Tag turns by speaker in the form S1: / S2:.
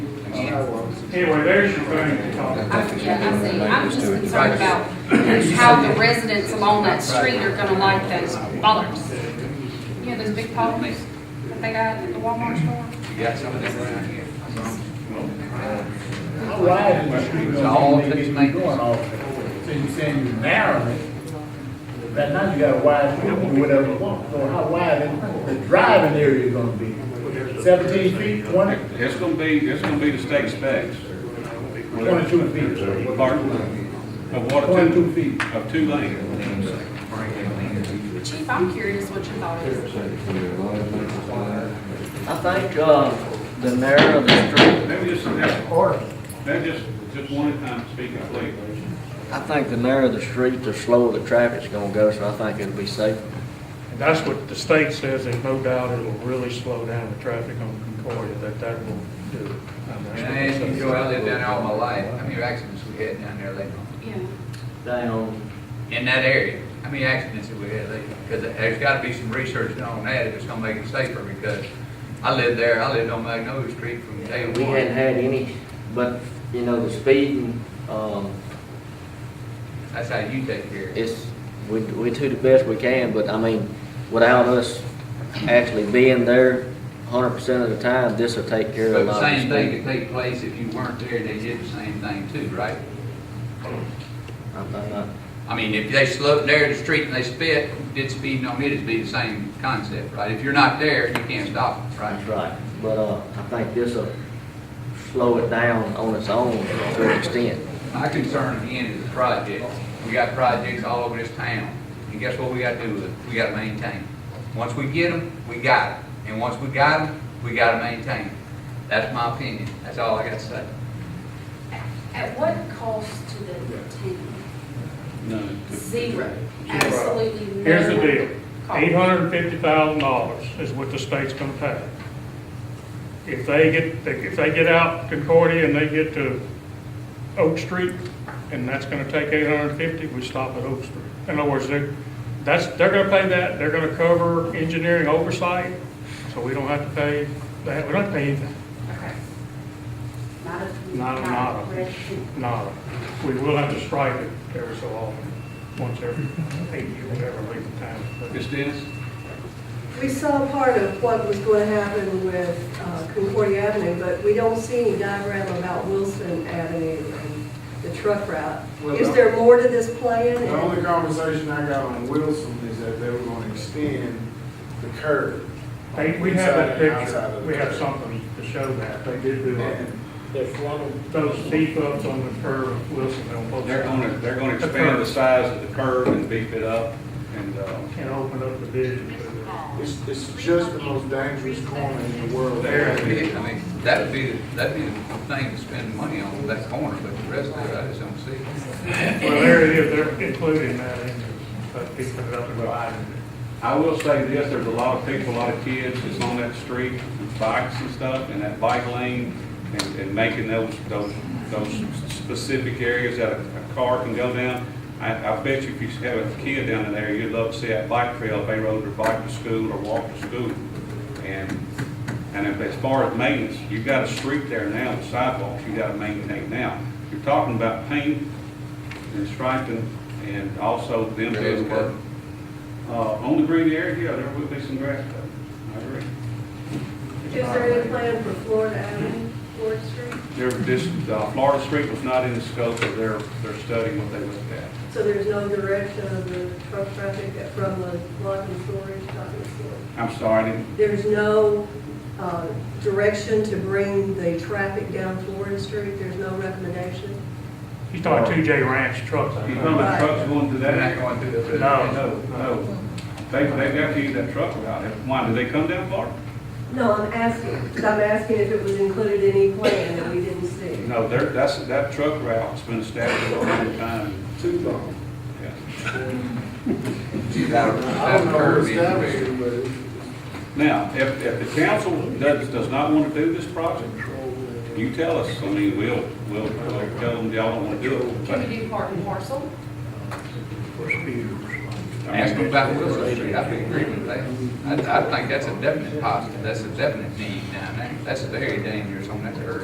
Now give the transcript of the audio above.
S1: Anyway, there's your thing to talk about.
S2: I, yeah, I see, I'm just concerned about how the residents along that street are gonna like those bollards. You know, those big poles that they got at the Walmart store?
S3: You got some of them around here.
S4: It's all these things. Going off. So you're saying you narrow it, but now you got a wide field or whatever you want, so how wide is the driving area gonna be? Seventeen feet, twenty,
S5: It's gonna be, it's gonna be the state specs.
S4: twenty-two feet,
S5: Pardon? Of what, two,
S4: twenty-two feet.
S5: of two lanes.
S2: Chief, I'm curious what your thought is.
S6: I think, uh, the narrow of the street,
S5: Maybe just, that, that just, just one at a time, speaking please.
S6: I think the narrower the street, the slower the traffic's gonna go, so I think it'll be safer.
S7: And that's what the state says, there's no doubt it will really slow down the traffic on Concordia, that that will do. it. And that's what
S3: And
S7: they
S3: as you
S7: say.
S3: know, I lived down there all my life, how many accidents we had down there lately?
S2: Yeah,
S6: Down,
S3: In that area, how many accidents have we had lately? Because there's gotta be some research done on that if it's gonna make it safer, because I lived there, I lived on Magnolia Street from day
S6: we hadn't
S3: one.
S6: had any, but, you know, the speeding, um,
S3: That's how you take care of it.
S6: it's, we, we do the best we can, but I mean, without us actually being there hundred percent of the time, this'll take care of
S3: But
S6: a
S3: the
S6: lot of the
S3: same thing
S6: speeding.
S3: could take place if you weren't there, they did the same thing too, right?
S6: I think I-
S3: I mean, if they slowed there the street and they spit, did speeding on it, it'd be the same concept, right? If you're not there, you can't stop
S6: That's
S3: it, right?
S6: right, but, uh, I think this'll slow it down on its own to an extent.
S3: My concern again is the project. We got projects all over this town, and guess what we gotta do with it? We gotta maintain. it. Once we get them, we got it, and once we got them, we gotta maintain. it. That's my opinion, that's all I gotta say.
S8: At what cost to the town?
S5: None.
S8: Zero, absolutely no.
S7: Here's the deal,
S8: cost.
S7: eight hundred and fifty thousand dollars is what the state's gonna pay. If they get, if they get out Concordia and they get to Oak Street, and that's gonna take eight hundred and fifty, we stop at Oak Street. In other words, they're, that's, they're gonna pay that, they're gonna cover engineering oversight, so we don't have to pay, that. we don't have to pay anything.
S8: Not a.
S7: Not a model.
S8: correction.
S7: No, we will have to stripe it every so often, once every eight years, whatever length of time.
S5: Ms. Dennis?
S9: We saw part of what was going to happen with uh, Concordia Avenue, but we don't see any diagram about Wilson Avenue and the truck route.
S10: Well,
S9: Is
S10: no.
S9: there more to this plan?
S10: The only conversation I got on Wilson is that they were gonna extend the curb.
S7: Hey, we have
S10: Inside
S7: that
S10: and outside of
S7: picture,
S10: the
S7: we have
S10: curb.
S7: something to show that, they did do it.
S10: And
S7: Those beef ups on the curve of Wilson, they'll put
S5: They're gonna, they're gonna expand the size of the curb and beef it up, and, uh,
S7: And open up the vision for the
S10: It's, it's just the most dangerous corner in the world.
S7: There.
S3: That'd be it. I mean, that'd be, that'd be the thing to spend money on, that corner, but the rest of it, I just don't see.
S7: Well, there it is, they're including that in, uh, there, but they put it up and widen
S5: I will say this, there's a lot of people, a lot of kids that's on that street, with bikes and stuff, and that bike lane, and, and making those, those, those specific areas that a a car can go down. I, I bet you if you have a kid down in there, you'd love to see that bike trail, if they rode their bike to school or walked to school. And, and if- as far as maintenance, you've got a street there now, with sidewalks, you gotta maintain now. You're talking about paint and striping, and also them doing work. Uh, on the green area, yeah, there will be some grass cut. I agree.
S9: Is there any plan for Florida Avenue, Florida Street?
S5: There, this, uh, Florida Street was not in the scope of their, their study, what they looked at.
S9: So there's no direction of the truck traffic from the and storage, not the storage?
S5: I'm sorry, I didn't
S9: There's no uh, direction to bring the traffic down Florida Street? There's no recommendation?
S7: He's talking two J Ranch trucks. I
S5: You
S7: think.
S5: know the trucks going to
S3: They're not
S5: that?
S3: going through the.
S7: No.
S5: No, no. They, they got to use that truck route. Why, do they come down Florida?
S9: No, I'm asking, 'cause I'm asking if it was included in any plan that we didn't see.
S5: No, they're, that's, that truck route's been established a long time.
S10: Too long.
S5: Yeah.
S10: I don't
S3: That
S10: know who
S3: curve is
S10: established
S3: big.
S10: it, but it's.
S5: Now, if, if the council does, does not want to do this project, you tell us. I mean, we'll, we'll, we'll tell them y'all don't want to do it.
S2: can
S5: but-
S2: we do part and parcel?
S3: Ask them about Wilson Street, I'd be agreeing with that. I, I think that's a definite positive, that's a definite need down there. That's very dangerous on that curve.